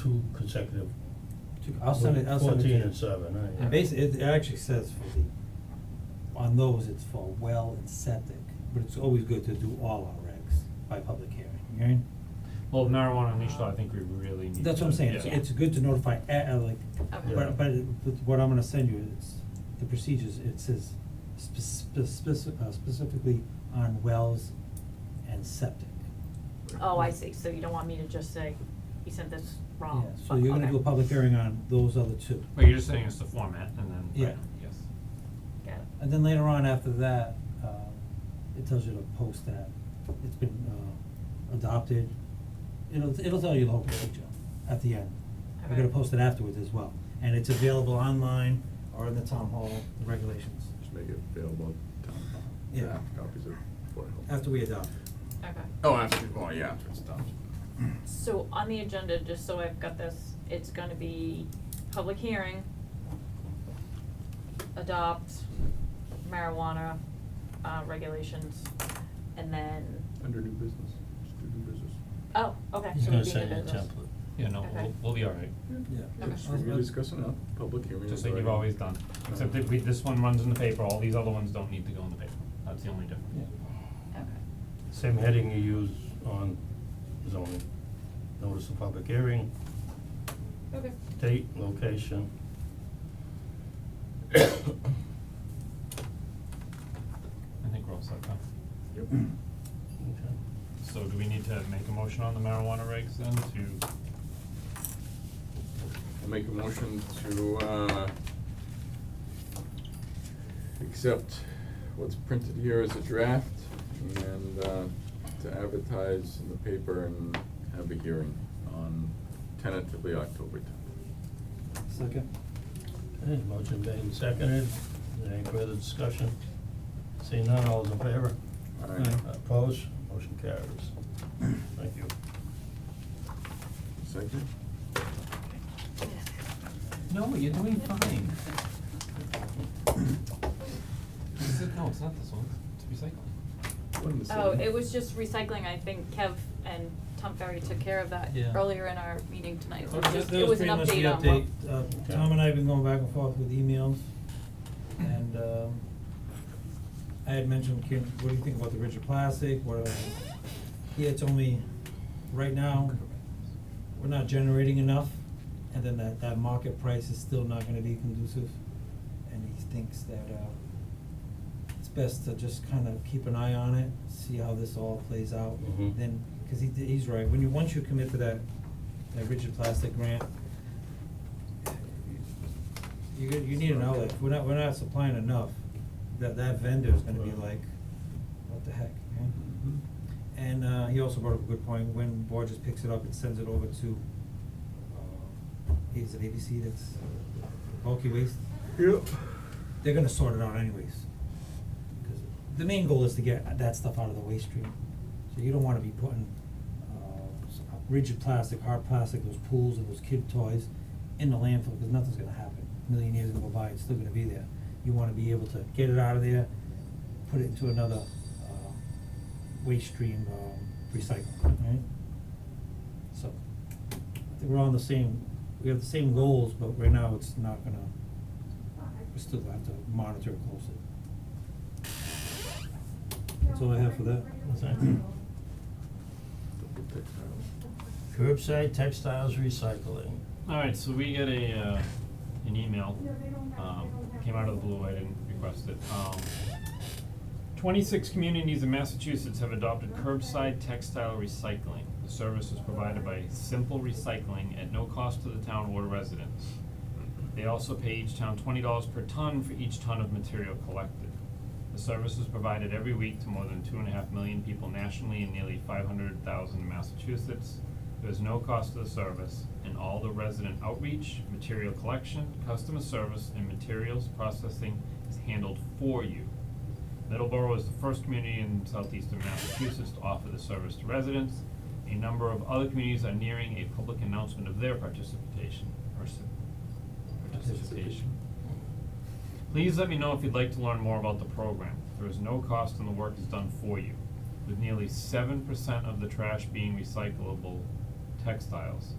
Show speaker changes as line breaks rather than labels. two consecutive.
Two- I'll send it, I'll send it to you.
Fourteen and seven, right?
And basically, it actually says for the, on those, it's for well and septic, but it's always good to do all our regs by public hearing, you hearing?
Well, marijuana and leash law, I think we really need to.
That's what I'm saying, it's,
yeah.
it's good to notify, uh, uh, like,
Okay.
Yeah.
but, but, it- but what I'm gonna send you is, the procedures, it says spec- spec- uh, specifically on wells and septic.
Oh, I see, so you don't want me to just say, he sent this wrong.
Yeah, so you're gonna
Okay.
do a public hearing on those other two.
But you're just saying it's the format and then,
Yeah.
right, yes.
Got it.
And then later on after that, uh, it tells you to post that, it's been, uh, adopted. It'll, it'll tell you the whole picture at the end. We're gonna
Alright.
post it afterwards as well, and it's available online or in the town hall, the regulations,
Just make it available to town.
Yeah.
Copies of Board of Health.
after we adopt it.
Okay.
Oh, after, oh, yeah, after it's done.
So on the agenda, just so I've got this, it's gonna be public hearing, adopt marijuana, uh, regulations, and then,
Under new business, just do new business.
oh, okay,
He's
so we'll
gonna
be in
send
the
you a
business.
template.
Yeah, no,
Okay.
we'll, we'll be all right,
Yeah.
Okay.
Just we discuss it now, public hearing.
just
is
like you've always
already-
done, except that we, this one runs in the paper, all these other ones don't need to go in the paper, that's the only difference.
Okay,
Same heading you use on zoning, notice of public hearing,
okay,
date, location.
I think we're all set, huh?
Yep.
Okay.
So do we need to make a motion on the marijuana regs then to,
I make a motion to, uh, accept what's printed here as a draft and, uh, to advertise in the paper and have a hearing on tentatively October tenth.
Second.
Okay, motion made and seconded, any further discussion? Seeing none, all those in favor?
Aye.
Opposed, motion carries. Thank you.
Uh, Second?
no, you're doing fine. Is it, no, it's not this one, it's recycling.
One to
oh,
seven.
it was just recycling, I think Kev and Tom Ferry took care of that
Yeah.
earlier in our meeting tonight, so
That-
it was
that-
just,
that
it was an update on what.
pretty much the update, uh, Tom and I have been going back and forth with emails, and, um, I had mentioned, Kim, what do you think about the rigid plastic, what, are- yeah, it's only, right now, we're not generating enough, and then that, that market price is still not gonna be conducive, and he thinks that, uh, it's best to just kind of keep an eye on it, see how this all plays out,
Mhm.
then, cause he, he's right, when you, once you commit to that, that rigid plastic grant, you get- you need an outlet, we're not, we're not supplying enough, that, that vendor is gonna be like, what the heck, you know?
Mhm.
And uh he also brought up a good point, when Borges picks it up and sends it over to uh is it ABC that's bulky waste?
Yep.
They're gonna sort it out anyways. 'Cause the main goal is to get that stuff out of the waste stream. So you don't wanna be putting uh s- rigid plastic, hard plastic, those pools and those kid toys in the landfill, cause nothing's gonna happen. A Million years gonna go by, it's still gonna be there. You wanna be able to get it out of there, put it into another uh waste stream um recycling, right? So, I think we're on the same, we have the same goals, but right now it's not gonna, we still have to monitor it closely. That's all I have for that.
Double tick now.
Curbside textiles recycling.
Alright, so we get a, uh, an email, um, came out of the blue, I didn't request it, um. Twenty-six communities in Massachusetts have adopted curbside textile recycling. The service is provided by Simple Recycling at no cost to the town or residents. They also pay each town twenty dollars per ton for each ton of material collected. The service is provided every week to more than two and a half million people nationally and nearly five hundred thousand in Massachusetts. There is no cost to the service, and all the resident outreach, material collection, customer service, and materials processing is handled for you. Middleborough is the first community in southeastern Massachusetts to offer the service to residents. A number of other communities are nearing a public announcement of their participation, or s- participation. Please let me know if you'd like to learn more about the program. There is no cost and the work is done for you. With nearly seven percent of the trash being recyclable textiles,